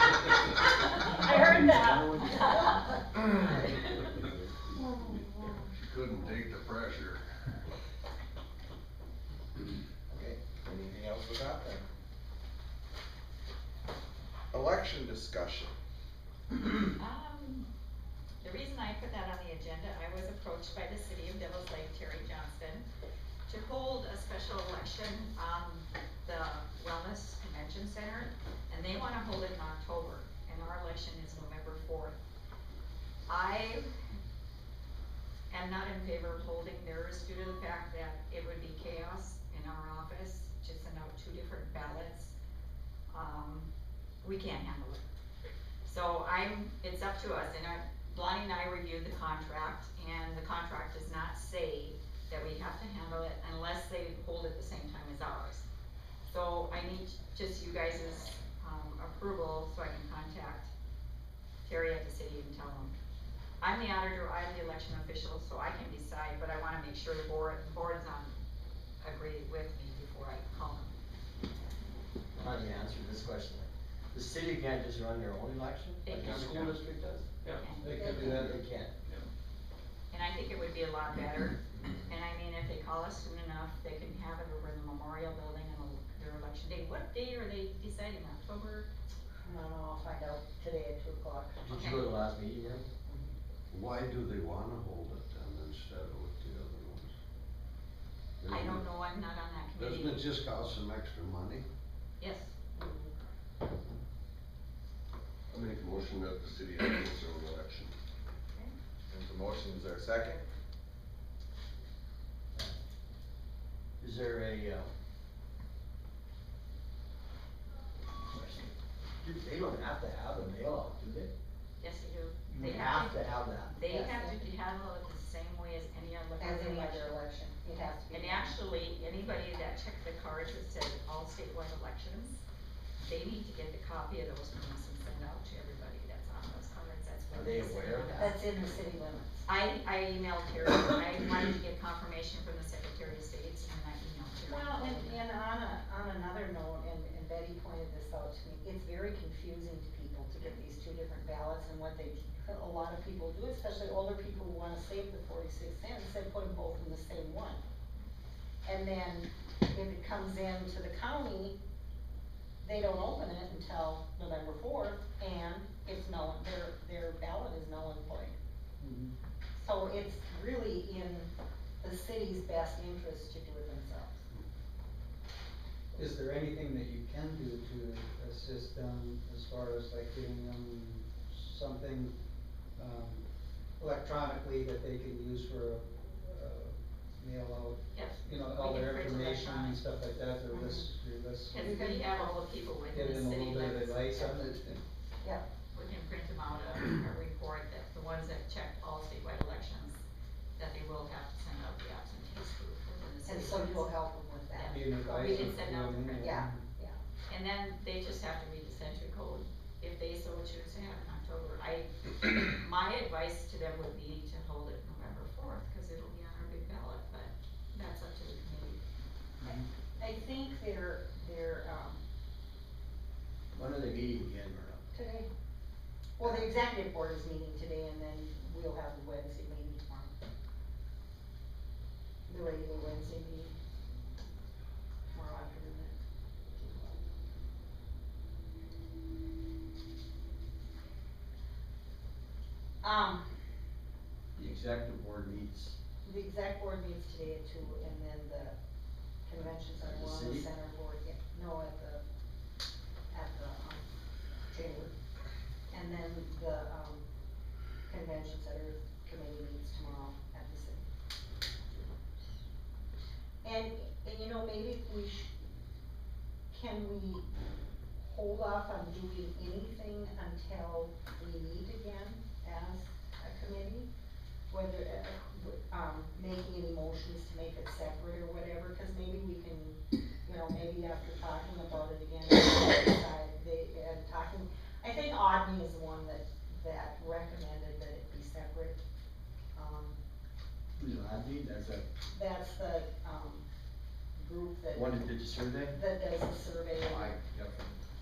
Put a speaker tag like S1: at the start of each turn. S1: I heard that.
S2: She couldn't take the pressure.
S3: Okay, anything else with that then? Election discussion.
S4: Um, The reason I put that on the agenda, I was approached by the city of Devil's Lake, Terry Johnston, to hold a special election on the Wellness Convention Center, and they wanna hold it in October, and our election is November fourth. I am not in favor of holding theirs due to the fact that it would be chaos in our office to send out two different ballots. Um, we can't handle it. So I'm, it's up to us, and I, Lonnie and I reviewed the contract, and the contract does not say that we have to handle it unless they hold it the same time as ours. So I need just you guys' um, approval so I can contact Terry at the city and tell him. I'm the auditor, I'm the election official, so I can decide, but I wanna make sure the board, board's on, agree with me before I call them.
S5: How do you answer this question? The city can't just run their own election,
S4: They
S5: like
S4: can.
S5: the school district does?
S6: Yeah.
S2: They could do that.
S5: They can't.
S4: And I think it would be a lot better, and I mean, if they call us soon enough, they can have it over in the memorial building on their election day. What day are they deciding, October?
S1: No, no, I'll find out today at two o'clock.
S5: Did you go to the last meeting, Mary?
S2: Why do they wanna hold it then instead of with the other ones?
S4: I don't know, I'm not on that
S2: Doesn't it
S4: committee.
S2: just cost some extra money?
S4: Yes,
S2: I make a motion that the city has its own election.
S3: There's a motion, is there a second?
S5: Is there a, uh, do, they don't have to have a mail out, do they?
S4: yes, you do.
S5: You
S4: They
S5: have to have that.
S4: They
S1: Yes.
S4: have to handle it the same way as any other.
S1: As any other election, it has to be.
S4: And actually, anybody that checked the cards that said all statewide elections, they need to get the copy of those forms and send out to everybody that's on those cards, that's what.
S5: Are they
S4: is.
S5: aware of that?
S1: That's in the city limits.
S4: I, I emailed Terry, I wanted to get confirmation from the Secretary of State, and I emailed Terry.
S1: Well, and, and on a, on another note, and, and Betty pointed this out to me, it's very confusing to people to get these two different ballots and what they, a lot of people do, especially older people who wanna save the forty-six cents, they put them both in the same one. And then if it comes in to the county, they don't open it until November fourth, and it's null, their, their ballot is null and void. So it's really in the city's best interest to do it themselves.
S7: Is there anything that you can do to assist them as far as like giving them something, um, electronically that they can use for, uh, mail
S4: Yes.
S7: out, you know,
S4: we
S7: all
S4: can
S7: their
S4: print it
S7: information and
S4: electronic.
S7: stuff like that, their lists, your lists.
S4: Cause we have all the people
S7: Get
S4: within
S7: in
S4: the
S7: a
S4: city
S7: little bit of
S4: limits.
S7: advice on it.
S4: We can print them out a, a report that the ones that checked all statewide elections, that they will have to send out the absentee proof within the city
S1: And
S4: limits.
S1: so you'll help them with that.
S7: Be an advice.
S4: can send out the print.
S1: Yeah.
S4: And then they just have to read the century code, if they so choose to have it in October. I, my advice to them would be to hold it November fourth, cause it'll be on our big ballot, but that's up to the committee.
S1: I think they're, they're, um,
S5: When are they meeting again, Myrna?
S1: today, well, the executive board is meeting today and then we'll have the Wednesday meeting tomorrow. The regular Wednesday meeting. Tomorrow afternoon. Um,
S5: The executive board meets,
S1: the exec board meets today at two and then the convention
S5: At
S1: center,
S5: the
S1: wellness
S5: city?
S1: center board, yeah, no, at the, at the, um, chamber. And then the, um, convention center committee meets tomorrow at the city. And, and you know, maybe we sh- can we hold off on doing anything until we meet again as a committee? whether, uh, w- um, making any motions to make it separate or whatever, cause maybe we can, you know, maybe after talking about it again, decide they, and talking, I think Audney is the one that, that recommended that it be separate. Um,
S5: who's it, Andy? That's a,
S1: that's the, um, group that,
S5: one that did the survey?
S1: that does the survey.
S5: Oh, I